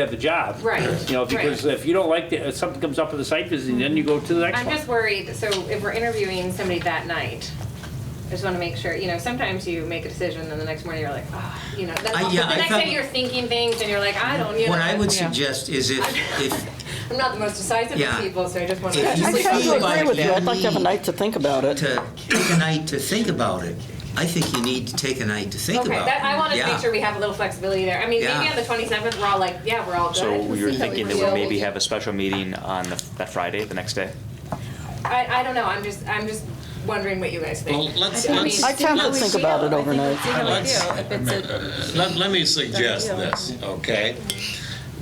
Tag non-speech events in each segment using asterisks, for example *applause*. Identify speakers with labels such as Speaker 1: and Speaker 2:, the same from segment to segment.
Speaker 1: have the job.
Speaker 2: Right,
Speaker 1: You know, because
Speaker 2: right.
Speaker 1: if you don't like, the- if something comes up with the site visit, then you go to the next
Speaker 2: I'm
Speaker 1: one.
Speaker 2: just worried, so if we're interviewing somebody that night, I just want to make sure, you know, sometimes you make a decision and the next morning you're like, oh, you know, that's
Speaker 3: I-
Speaker 2: all-
Speaker 3: yeah,
Speaker 2: but
Speaker 3: I
Speaker 2: the next
Speaker 3: felt-
Speaker 2: day you're thinking things and you're like, I don't, you know.
Speaker 3: What I would
Speaker 4: Yeah.
Speaker 3: suggest is if,
Speaker 2: *laughs*
Speaker 3: if,
Speaker 2: I'm not the most decisive
Speaker 3: Yeah.
Speaker 2: of people, so I just want *laughs*
Speaker 3: If you
Speaker 4: I
Speaker 3: Like,
Speaker 4: tend
Speaker 3: feel
Speaker 4: to
Speaker 3: like
Speaker 4: agree with you. I'd like to have a
Speaker 3: we-
Speaker 4: night to think about it.
Speaker 3: to take a night to think about it, I think you need to take a night to think
Speaker 2: Okay,
Speaker 3: about it.
Speaker 2: that, I want to
Speaker 3: Yeah.
Speaker 2: make sure we have a little flexibility there. I mean, maybe
Speaker 3: Yeah.
Speaker 2: on the 27th, we're all like, yeah, we're all good.
Speaker 5: So
Speaker 2: Let's
Speaker 5: you're
Speaker 2: see how we
Speaker 5: thinking that we
Speaker 2: feel.
Speaker 5: maybe have a special meeting on the- that Friday, the next day?
Speaker 2: I, I don't know, I'm just, I'm just wondering what you guys think.
Speaker 6: Well, let's-
Speaker 2: I mean,
Speaker 6: let's-
Speaker 4: I tend to think about it overnight.
Speaker 6: Let's- Let, let me suggest
Speaker 7: Done deal.
Speaker 6: this, okay?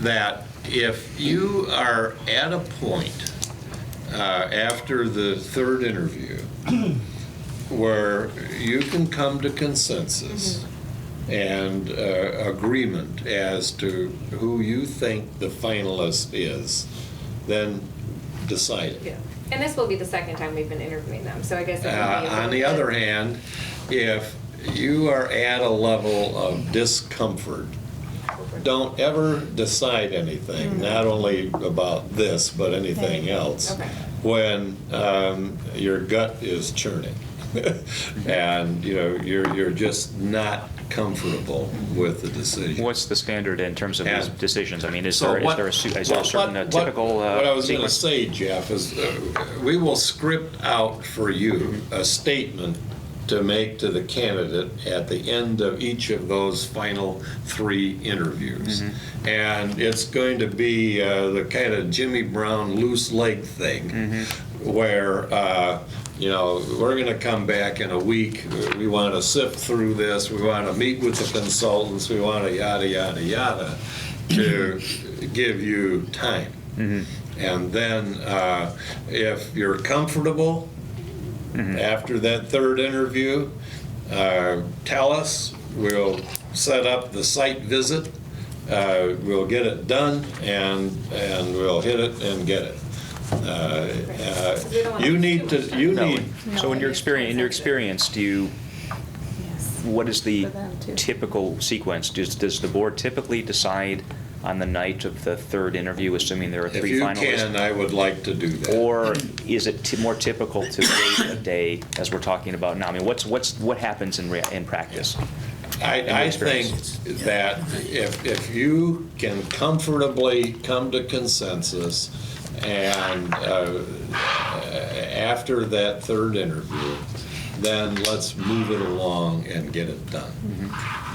Speaker 6: That if you are at a point uh, after the
Speaker 2: *clears throat*
Speaker 6: third interview where you can come to consensus
Speaker 2: Mm-hmm.
Speaker 6: and uh, agreement as to who you think the finalist is, then decide it.
Speaker 2: Yeah. And this will be the second time we've been interviewing them, so I guess. it would be
Speaker 6: Uh, On the
Speaker 2: appropriate.
Speaker 6: other hand, if you are at a level of discomfort, don't ever decide anything, not only about this, but anything else,
Speaker 2: Okay.
Speaker 6: when um, your gut is churning. *laughs* And, you know, you're, you're just not comfortable with the decision.
Speaker 5: What's the standard in terms of these
Speaker 6: Yeah.
Speaker 5: decisions? I mean, is
Speaker 6: So
Speaker 5: there, is
Speaker 6: what-
Speaker 5: there a su- is
Speaker 6: what-
Speaker 5: there a certain uh,
Speaker 6: what- what-
Speaker 5: typical uh,
Speaker 6: What I was going to
Speaker 5: sequence?
Speaker 6: say, Jeff, is uh, we will script out for you a statement to make to the candidate at the end of each of those final three interviews. And it's going to be uh, the kind of Jimmy Brown loose leg thing where, uh, you know, we're going to come back in a week. We want to sift through this. We want to meet with the consultants. We want to yada, yada, yada to give you time. And then uh, if you're comfortable
Speaker 5: Mm-hmm.
Speaker 6: after that third interview, uh, tell us. We'll set up the site visit. Uh, We'll get it done and, and we'll hit it and get it. Uh,
Speaker 2: We don't
Speaker 6: uh,
Speaker 2: want
Speaker 6: You
Speaker 2: to
Speaker 6: need
Speaker 2: do
Speaker 6: to, you
Speaker 5: No.
Speaker 6: need,
Speaker 5: So in your experience, in your experience, do you, what is the
Speaker 7: For them, too.
Speaker 5: typical sequence? Does, does the board typically decide on the night of the third interview, assuming there are
Speaker 6: if
Speaker 5: three
Speaker 6: you
Speaker 5: finalists?
Speaker 6: can, I would like to do that.
Speaker 5: Or is it t- more typical to wait a day, as we're talking about now? I mean, what's, what's, what happens in, rea- in practice? in your
Speaker 6: I, I think
Speaker 5: experience.
Speaker 6: that if, if you can comfortably come to consensus and uh, after that third interview, then let's move it along and get it done.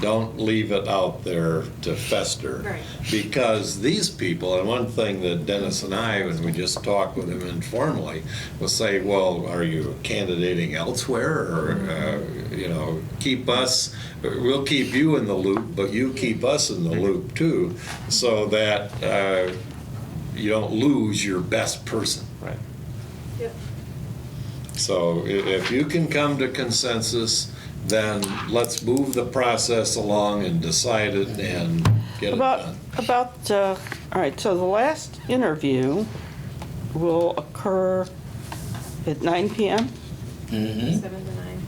Speaker 6: Don't leave it out there to fester.
Speaker 2: Right.
Speaker 6: Because these people, and one thing that Dennis and I, when we just talked with him informally, will say, well, are you candidating elsewhere? Or, uh, you know, keep us, we'll keep you in the loop, but you keep us in the loop too, so that uh, you don't lose your best person.
Speaker 5: Right.
Speaker 2: Yep.
Speaker 6: So i- if you can come to consensus, then let's move the process along and decide it and get it
Speaker 4: About,
Speaker 6: done.
Speaker 4: about, uh, all right, so the last interview will occur at 9 PM?
Speaker 3: Hmm?
Speaker 2: Seven to nine.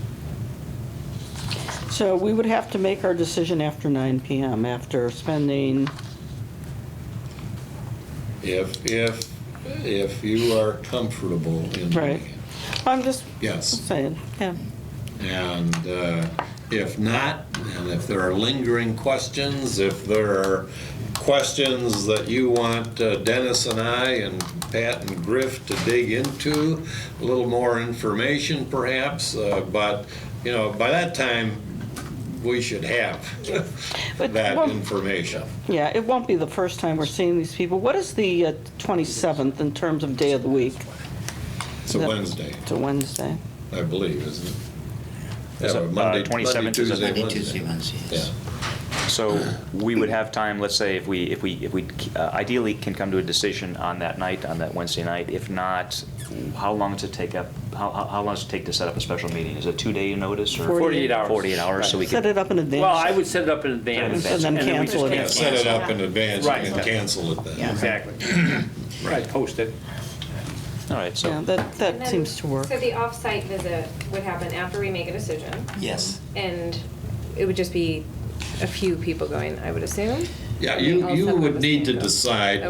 Speaker 4: So we would have to make our decision after 9 PM, after spending,
Speaker 6: If, if, if you are comfortable in
Speaker 4: Right.
Speaker 6: doing
Speaker 4: I'm just
Speaker 6: it. Yes.
Speaker 4: saying, yeah.
Speaker 6: And uh, if not, and if there are lingering questions, if there are questions that you want uh, Dennis and I and Pat and Griff to dig into, a little more information perhaps, uh, but, you know, by that time, we should have
Speaker 4: But
Speaker 6: that
Speaker 4: one-
Speaker 6: information.
Speaker 4: Yeah, it won't be the first time we're seeing these people. What is the uh, 27th in terms of day of the week?
Speaker 6: It's a Wednesday,
Speaker 4: It's a Wednesday.
Speaker 6: I believe, isn't it?
Speaker 5: Is
Speaker 6: Yeah,
Speaker 5: it, uh,
Speaker 6: Monday-
Speaker 5: 27th is a-
Speaker 6: Monday,
Speaker 3: Monday,
Speaker 6: Tuesday,
Speaker 3: Tuesday,
Speaker 6: Wednesday.
Speaker 3: Wednesday.
Speaker 6: Yeah.
Speaker 3: yes.
Speaker 5: So we would have time, let's say, if we, if we, if we uh, ideally can come to a decision on that night, on that Wednesday night. If not, how long does it take up, how, how how long does it take to set up a special meeting? Is it two-day notice or?
Speaker 4: 48
Speaker 1: hours.
Speaker 5: 48 hours, so we
Speaker 4: Set
Speaker 5: could,
Speaker 4: it up in advance.
Speaker 1: Well, I would set it up in advance.
Speaker 5: And
Speaker 4: then
Speaker 1: we
Speaker 4: cancel
Speaker 1: just
Speaker 4: it.
Speaker 6: Yeah, Set it up in advance
Speaker 1: Right.
Speaker 6: and cancel it then.
Speaker 1: Exactly. Right, post it.
Speaker 5: all right, so.
Speaker 4: Yeah, that,
Speaker 2: And
Speaker 4: that
Speaker 2: then-
Speaker 4: seems to work.
Speaker 2: So the off-site visit would happen after we make a decision,
Speaker 3: Yes.
Speaker 2: and it would just be a few people going, I would assume?
Speaker 6: Yeah, you,
Speaker 2: All
Speaker 6: you
Speaker 2: seven of
Speaker 6: would
Speaker 2: us
Speaker 6: need
Speaker 2: can
Speaker 6: to
Speaker 2: go.
Speaker 6: decide